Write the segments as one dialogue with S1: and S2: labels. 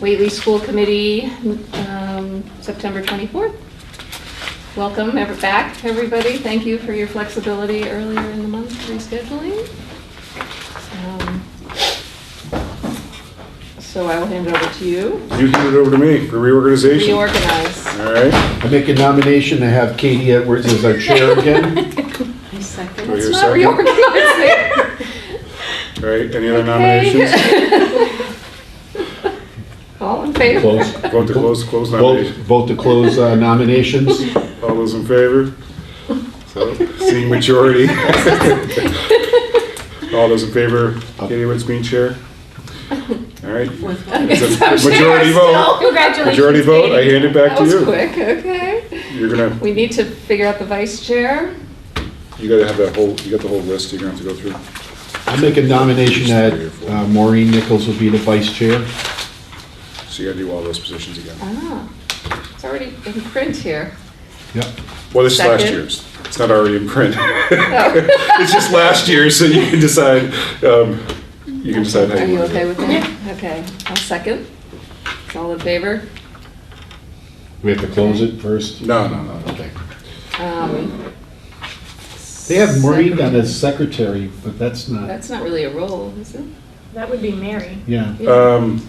S1: Whately School Committee, um, September 24th. Welcome ever back, everybody. Thank you for your flexibility earlier in the month rescheduling. Um, So I will hand it over to you.
S2: You hand it over to me for reorganization. All
S1: Reorganize.
S2: right.
S3: I make a nomination to have Katie Edwards as our chair again.
S4: I second.
S2: Do I hear a
S1: It's not
S2: second?
S1: reorganizing.
S2: All right, any other nominations?
S1: Okay. All in favor?
S3: Close.
S2: Vote to close, close
S3: Vote,
S2: nomination.
S3: vote to close uh, nominations.
S2: All those in favor? So, seeing majority. All those in favor, Katie Woods being chair? All right.
S4: With
S1: Okay,
S2: It's a
S1: so I'm sure
S2: majority
S1: I'm
S2: vote.
S1: still- Congratulations.
S2: Majority vote, I
S1: Katie.
S2: hand it back
S1: That
S2: to
S1: was
S2: you.
S1: quick, okay.
S2: You're gonna,
S1: We need to figure out the vice chair.
S2: you gotta have that whole, you got the whole list you're gonna have to go through.
S3: I make a nomination that uh, Maureen Nichols will be the vice chair.
S2: So you gotta do all those positions again.
S1: Ah, it's already in print here.
S3: Yep.
S2: Well, this is last
S1: Second.
S2: year's. It's not already in print.
S1: Oh.
S2: It's just last year, so you can decide, um, you can decide how
S1: Are
S2: you
S1: you
S2: want to do
S1: okay with
S2: it.
S1: that? Oh. Okay, I'll second. All in favor?
S3: We have to close it first?
S2: No, no, no, no.
S3: Okay.
S1: Um,
S3: They have Maureen down as secretary, but that's not,
S1: That's not really a role, is it?
S5: That would be Mary.
S3: yeah.
S2: Um,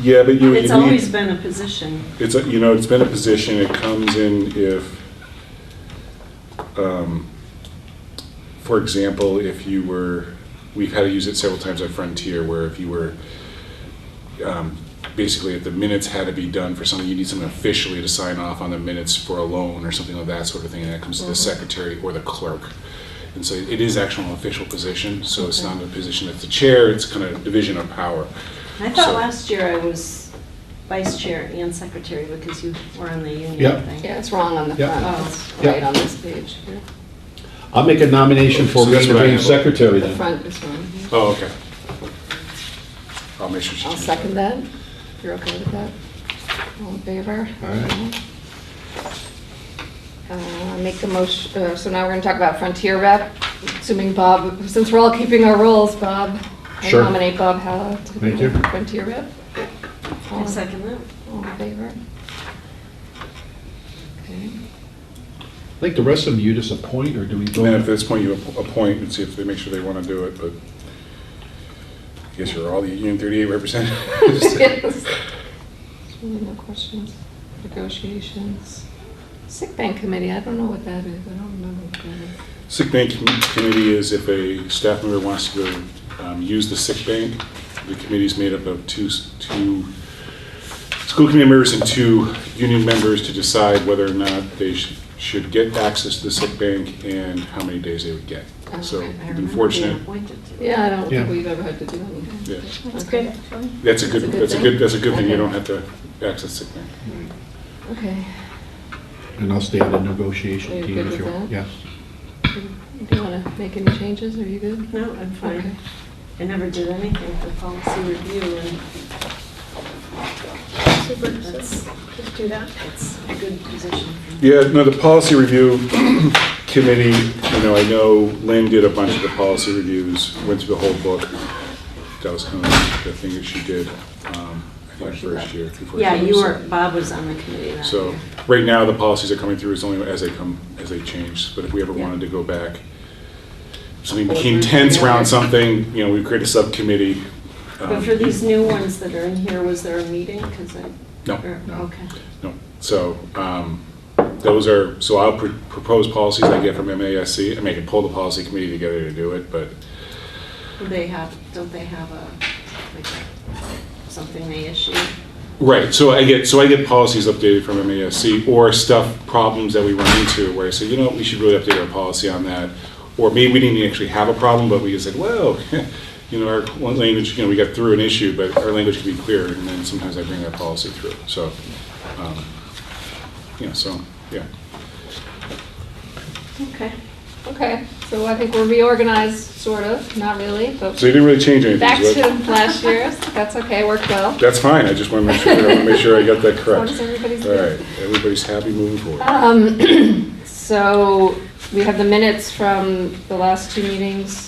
S2: yeah, but you, you
S4: It's always
S2: need,
S4: been a position.
S2: it's, a- you know, it's been a position, it comes in if, um, for example, if you were, we've had to use it several times at Frontier, where if you were, um, basically, if the minutes had to be done for something, you need someone officially to sign off on the minutes for a loan or something of that sort of thing, and that comes to the secretary or the clerk. And so it is actually an official position, so it's not a position that's the chair, it's kind of division of power.
S4: I thought
S2: So-
S4: last year I was vice chair and secretary because you were on the union
S3: Yep.
S4: thing.
S1: Yeah, it's wrong on the
S3: Yeah. Oh.
S1: front. It's
S3: Yeah.
S1: right on this page. here.
S3: I'll make a nomination for
S2: So that's
S3: Maureen to
S2: what I
S3: be
S2: have.
S3: secretary
S1: The
S3: then.
S1: front is wrong. here.
S2: Oh, okay. I'll make sure she.
S1: I'll
S2: changes
S1: second that. If You're okay with that? All in favor?
S3: All right.
S1: Uh, Make a motion, uh, so now we're going to talk about Frontier Rep, assuming Bob, since we're all keeping our roles, Bob.
S3: Sure.
S1: I nominate Bob Hallow to
S3: Thank you.
S1: be Frontier Rep. All
S4: I
S1: in-
S4: second that.
S1: All in favor? Okay.
S3: I think the rest of them you just appoint or do we
S2: And then at
S3: vote?
S2: this point, you app- appoint and see if they make sure they want to do it, but I guess you're all the Union 38 representatives.
S1: Yes. Really no questions. Negotiations. Sick bank committee, I don't know what that is. I don't remember what that is.
S2: Sick bank com- committee is if a staff member wants to um, use the sick bank, the committee's made up of two, s- two school committee members and two union members to decide whether or not they sh- should get access to the sick bank and how many days they would get.
S1: Oh,
S2: So
S1: okay. I
S4: I
S2: we've been
S4: remember
S2: fortunate.
S4: being appointed to it.
S1: Yeah, I don't think
S3: Yeah.
S1: we've ever had to do anything.
S2: Yeah.
S5: That's good, actually.
S2: That's a good, that's a good, that's a good thing, you
S1: Okay.
S2: don't have to access sick bank.
S1: Okay.
S3: And I'll stay on the
S1: Are
S3: negotiation
S1: you
S3: team
S1: good
S3: if
S1: with
S3: you
S1: that?
S3: want. Yeah.
S1: Do you want to make any changes? Are you good?
S4: No, I'm
S1: Okay.
S4: fine. I never did anything for policy review and
S5: Super,
S4: that's,
S5: so just do that.
S4: that's a good position. for me.
S2: Yeah, no, the policy review committee, you know, I know Lynn did a bunch of the policy reviews, went through the whole book. That was kind of the thing that she did, um, I think first year. before
S4: Yeah,
S2: she
S4: you
S2: was-
S4: were, Bob was on the committee that
S2: So,
S4: year.
S2: right now, the policies are coming through, it's only as they come, as they change, but if we ever wanted to go back, if something became tense around something, you know, we create a subcommittee. um,
S4: But for these new ones that are in here, was there a meeting? 'Cause I.
S2: No,
S4: or-
S2: no.
S4: Okay.
S2: No, so, um, those are, so I'll pr- propose policies I get from MASC, I mean, I can pull the policy committee together to do it, but
S4: Do They have, don't they have a, like, something they issue?
S2: Right, so I get, so I get policies updated from MASC, or stuff, problems that we run into, where I say, you know, what, we should really update our policy on that. Or maybe we didn't actually have a problem, but we just said, well, you know, our one language, you know, we got through an issue, but our language can be clearer, and then sometimes I bring that policy through, so, um, you know, so, yeah.
S4: Okay.
S1: Okay, so I think we're reorganized, sort of, not really, but
S2: So you didn't really change anything,
S1: back
S2: so
S1: to last year's. That's okay, worked well.
S2: That's fine, I just want to make sure, I want to make sure I got that
S1: How
S2: correct.
S1: does everybody's
S2: All right, everybody's happy moving forward.
S1: Um, so we have the minutes from the last two meetings